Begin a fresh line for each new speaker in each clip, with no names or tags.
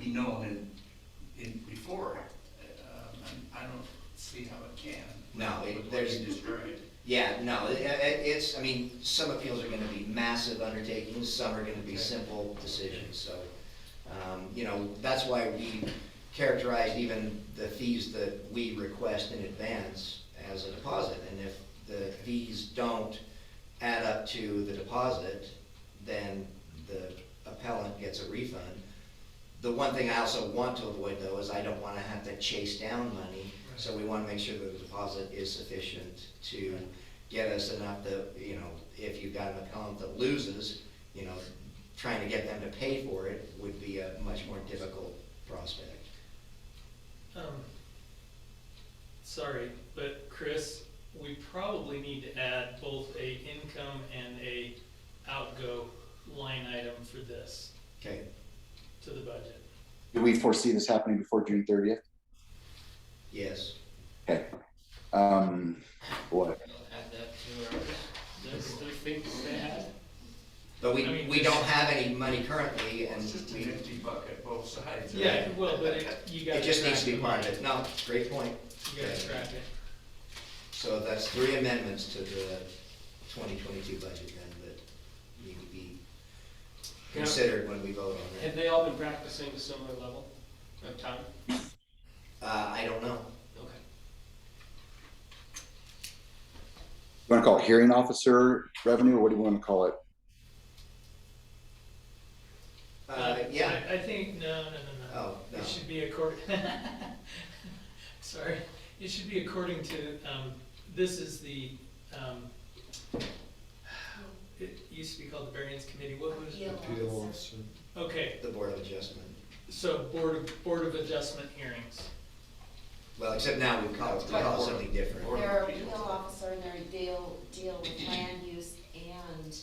be known in, in, before. Um, and I don't see how it can.
No,
With
it-
what's
there's-
described.
Yeah, no, it, it- it's, I mean, some appeals are gonna be massive undertakings, some are gonna be simple decisions, so, um, you know, that's why we characterized even the fees that we request in advance as a deposit, and if the fees don't add up to the deposit, then the appellant gets a refund. The one thing I also want to avoid though is I don't wanna have to chase down money, so we wanna make sure that the deposit is sufficient to get us enough that, you know, if you've got an appellant that loses, you know, trying to get them to pay for it would be a much more difficult prospect.
Um, Sorry, but Chris, we probably need to add both a income and a outgo line item for this
Okay,
to the budget.
Do we foresee this happening before June thirtieth?
yes,
Okay. Um, what?
Add that to our, those three things they had.
but we,
I mean,
we
this-
don't have any money currently and
It's just a
we,
fifty bucket both sides. right?
Yeah, well, but it, you gotta.
it just needs to be
track the
part of
money.
it. No, great point.
You gotta track it.
So that's three amendments to the twenty twenty-two budget then that need to be
Yeah.
considered when we vote on
Have
it.
they all been practicing a similar level of time?
Uh, I don't know.
Okay.
You wanna call it hearing officer revenue, or what do you wanna call it?
Uh, yeah,
I I think, no, no, no, no.
oh, no,
It should be accord, sorry, it should be according to, um, this is the, um, it used to be called the variance committee, what was it?
Appeal officer.
Okay,
the Board of Adjustment.
so Board of, Board of Adjustment hearings.
Well, except now we call it, we call it something different.
Or-
They're a appeal officer and they're a deal, deal with land use and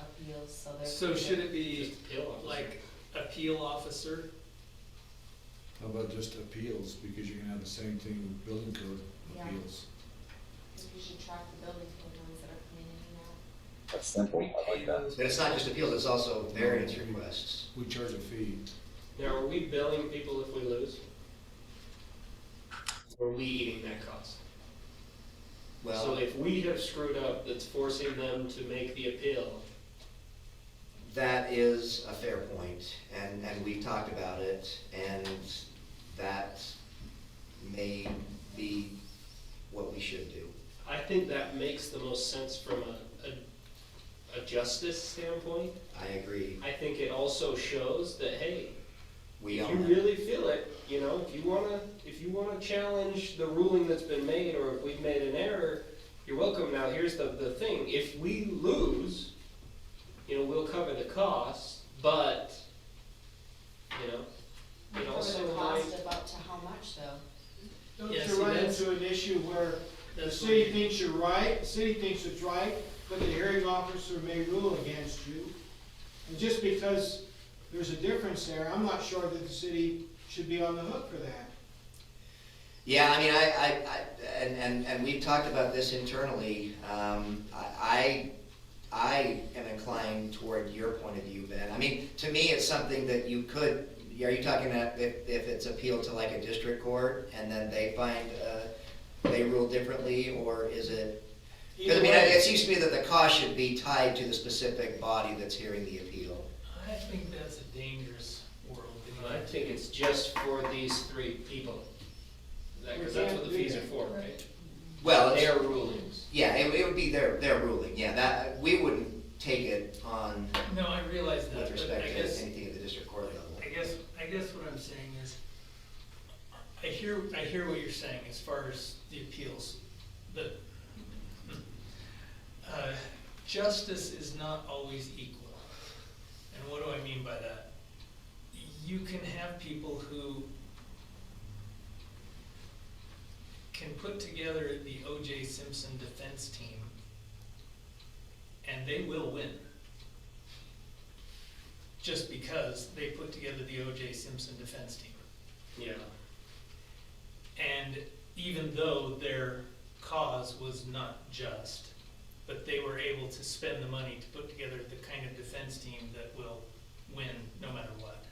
appeals, so they're.
So should it be
Just appeal officer.
like appeal officer?
How about just appeals, because you're gonna have the same thing with building code
Yeah.
appeals.
You should track the building code ones that are coming in and out.
That's simple, I like that.
But it's not just appeals, it's also variance requests.
We charge a fee.
Now, are we billing people if we lose? Or are we eating that cost? So
Well,
if we have screwed up, that's forcing them to make the appeal.
that is a fair point, and, and we talked about it, and that may be what we should do.
I think that makes the most sense from a, a, a justice standpoint.
I agree.
I think it also shows that, hey,
We
If you
own it.
really feel it, you know, if you wanna, if you wanna challenge the ruling that's been made, or if we've made an error, you're welcome, now here's the, the thing, if we lose, you know, we'll cover the cost, but, you know, it
For
also
the
might.
cost of up to how much though?
Don't
Yeah,
you
see,
run
that's-
into an issue where the
That's
city
what-
thinks you're right, the city thinks it's right, but the hearing officer may rule against you? And just because there's a difference there, I'm not sure that the city should be on the hook for that.
Yeah, I mean, I, I, I, and, and, and we've talked about this internally, um, I, I I am inclined toward your point of view, Ben. I mean, to me, it's something that you could, are you talking about if, if it's appealed to like a district court and then they find, uh, they rule differently, or is it? Cause I
Either
mean,
way-
it seems to me that the cost should be tied to the specific body that's hearing the appeal.
I think that's a dangerous world. in my
I think it's just for these three people, that,
We
cause that's what
can't
the
do
fees are
that.
for, right?
Well, it's-
Their rulings.
yeah, it, it would be their, their ruling, yeah, that, we wouldn't take it on
opinion. No, I realize
with
that, but uh, I
respect to
guess,
anything at the district court level.
I guess, I guess what I'm saying is, I hear, I hear what you're saying as far as the appeals, but uh, justice is not always equal. And what do I mean by that? You can have people who can put together the O.J. Simpson defense team, and they will win. Just because they put together the O.J. Simpson defense team.
Yeah.
And even though their cause was not just, but they were able to spend the money to put together the kind of defense team that will win no matter what.